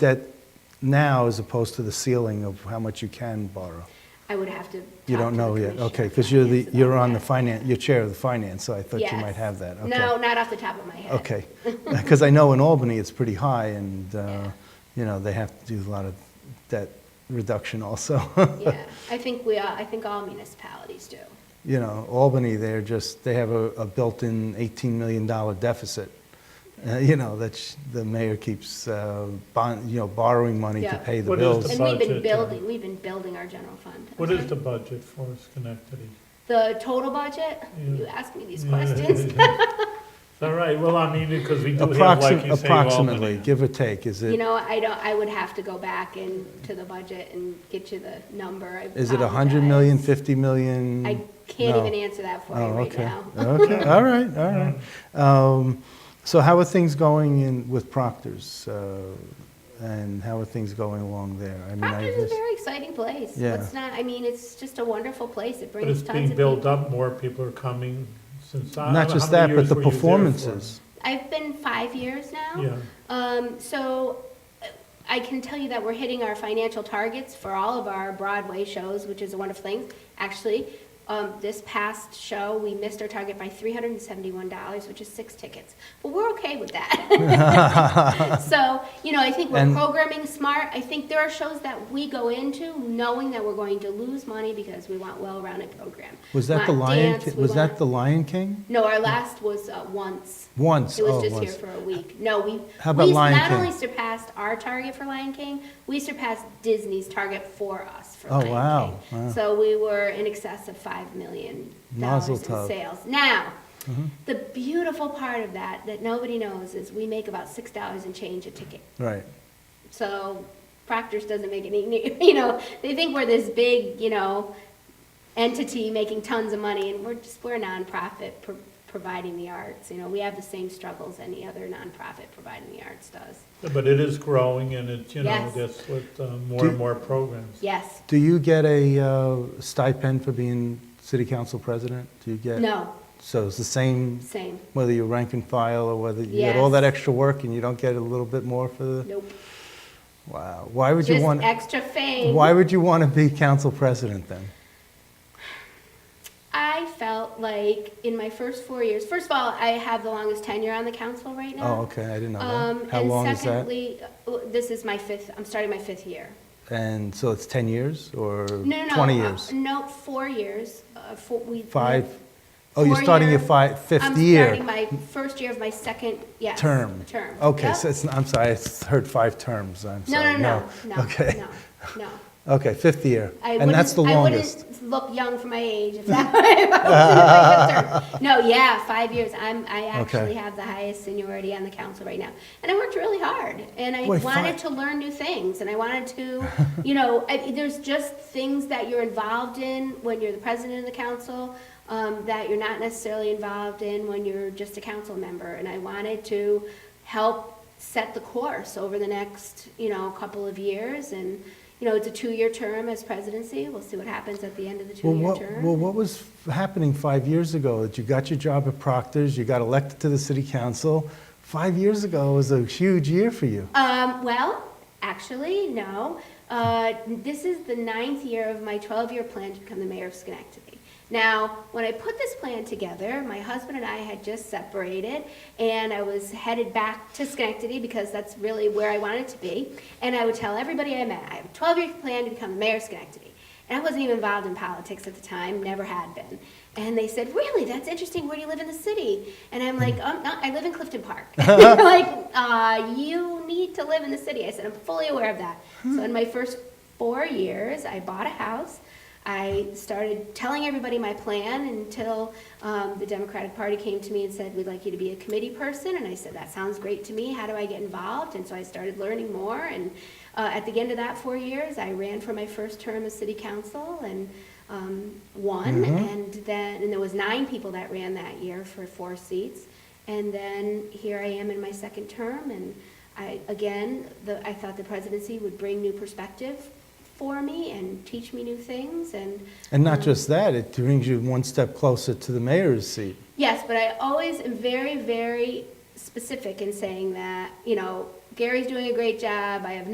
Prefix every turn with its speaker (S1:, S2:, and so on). S1: debt now as opposed to the ceiling of how much you can borrow?
S2: I would have to.
S1: You
S2: talk
S1: don't
S2: to the
S1: know yet,
S2: commissioner
S1: okay,
S2: on
S1: because you're the,
S2: finance
S1: you're
S2: about
S1: on the
S2: that.
S1: finance, you're chair of the finance, so I thought you
S2: Yes.
S1: might have that, okay.
S2: No, not off the top of my head.
S1: Okay, because I know in Albany, it's pretty high, and, uh, you know, they have to do a lot of debt reduction also.
S2: Yeah, I think we are, I think all municipalities do.
S1: You know, Albany, they're just, they have a a built-in $18 million deficit. Uh, You know, that's, the mayor keeps uh, bond, you know, borrowing money
S2: Yeah.
S1: to pay the
S3: What is the
S1: bills.
S2: And we've been
S3: budget, uh,
S2: building, we've been building our general fund. I'm
S3: What is the
S2: sorry.
S3: budget for Schenectady?
S2: The total budget? You ask me these questions.
S3: It's all right, well, I mean, because we do have, like
S1: Approxi-
S3: you say,
S1: Approximately,
S3: Albany.
S1: give or take, is
S2: You
S1: it,
S2: know, I don't, I would have to go back and to the budget and get you the number. I
S1: is it 100
S2: apologize.
S1: million, 50 million?
S2: I can't
S1: No.
S2: even answer that for you
S1: Oh,
S2: right
S1: okay.
S2: now.
S1: Okay, all right, all right. Um, So how are things going in, with Proctor's? uh, And how are things going along there? I mean, I
S2: Proctor's is a
S1: just
S2: very exciting place.
S1: Yeah.
S2: It's not, I mean, it's just a wonderful place. It
S3: But
S2: brings
S3: it's
S2: tons of people.
S3: being built up, more people are coming since. I-
S1: Not
S3: how
S1: just that,
S3: many
S1: but
S3: years
S1: the
S3: were you there for?
S1: performances.
S2: I've been five years now.
S3: Yeah.
S2: Um, so uh, I can tell you that we're hitting our financial targets for all of our Broadway shows, which is a wonderful thing. Actually, um, this past show, we missed our target by three hundred and seventy-one dollars, which is six tickets. But we're okay with that. So, you know, I think we're
S1: And-
S2: programming smart. I think there are shows that we go into knowing that we're going to lose money because we want well-rounded program.
S1: Was that the
S2: Want
S1: Lion,
S2: dance,
S1: Ki-
S2: we
S1: was
S2: want-
S1: that the Lion King?
S2: No, our last was uh, once.
S1: Once,
S2: It was
S1: oh,
S2: just here
S1: once.
S2: for a week. No, we,
S1: How about
S2: we
S1: Lion
S2: not
S1: King?
S2: only surpassed our target for Lion King, we surpassed Disney's target for us for
S1: Oh,
S2: Lion
S1: wow,
S2: King.
S1: wow.
S2: So we were in excess of five million dollars
S1: Mazel
S2: in
S1: tov. Mm-hmm.
S2: sales. Now, the beautiful part of that that nobody knows is we make about six dollars and change a ticket.
S1: Right.
S2: So Proctor's doesn't make any, you know, they think we're this big, you know, entity making tons of money, and we're just, we're a nonprofit pro- providing the arts. You know, we have the same struggles any other nonprofit providing the arts does.
S3: But it is growing and it's, you know,
S2: Yes.
S3: that's with uh,
S1: Do-
S3: more and more programs.
S2: Yes,
S1: Do you get a uh, stipend for being city council president? Do you get?
S2: no,
S1: So it's the same,
S2: same,
S1: whether you rank and file or whether you get all
S2: Yes.
S1: that extra work and you don't get a little bit more for the?
S2: nope.
S1: Wow. Why would you
S2: Just
S1: want,
S2: extra fame.
S1: why would you want to be council president then?
S2: I felt like in my first four years, first of all, I have the longest tenure on the council right now.
S1: Oh, okay, I didn't know
S2: Um,
S1: that. How long
S2: and
S1: is that?
S2: secondly, uh, this is my fifth, I'm starting my fifth year.
S1: And so it's 10 years or
S2: No, no,
S1: 20
S2: no, uh,
S1: years?
S2: No, four years. Uh, four, we
S1: Five?
S2: we-
S1: Oh, you're
S2: four
S1: starting your
S2: year-
S1: fi- fifth year?
S2: I'm starting my first year of my second, yes.
S1: Term?
S2: Term.
S1: Okay,
S2: Yep.
S1: so it's, I'm sorry, I s- heard five terms, I'm
S2: No,
S1: sorry.
S2: no, no, no,
S1: Okay,
S2: no, no.
S1: okay, fifth year.
S2: I
S1: And that's the
S2: wouldn't-
S1: longest.
S2: I wouldn't look young for my age if that were my term. No, yeah, five years. I'm, I actually have the highest seniority on the council right now. And I worked really hard and I
S1: Wait,
S2: wanted
S1: five-
S2: to learn new things and I wanted to, you know, I, there's just things that you're involved in when you're the president of the council um, that you're not necessarily involved in when you're just a council member. And I wanted to help set the course over the next, you know, couple of years. And, you know, it's a two-year term as presidency. We'll see what happens at the end of the
S1: Well,
S2: two-year
S1: what,
S2: term.
S1: well, what was f- happening five years ago? That you got your job at Proctor's, you got elected to the city council. Five years ago was a huge year for you.
S2: Um, well, actually, no. Uh, this is the ninth year of my 12-year plan to become the mayor of Schenectady. Now, when I put this plan together, my husband and I had just separated, and I was headed back to Schenectady because that's really where I wanted to be. And I would tell everybody I met, I have a 12-year plan to become the mayor of Schenectady. And I wasn't even involved in politics at the time, never had been. And they said, "Really? That's interesting. Where do you live in the city?" And I'm like, um, no, "I live in Clifton Park." They're like, uh, "You need to live in the city." I said, "I'm fully aware of that." So in my first four years, I bought a house. I started telling everybody my plan until um, the Democratic Party came to me and said, "We'd like you to be a committee person." And I said, "That sounds great to me. How do I get involved?" And so I started learning more. And uh, at the end of that four years, I ran for my first term as city council and um, won. And then, and there was nine people that ran that year for four seats. And then here I am in my second term, and I again, the, I thought the presidency would bring new perspective for me and teach me new things and.
S1: And not just that, it brings you one step closer to the mayor's seat.
S2: Yes, but I always am very, very specific in saying that, you know, Gary's doing a great job, I have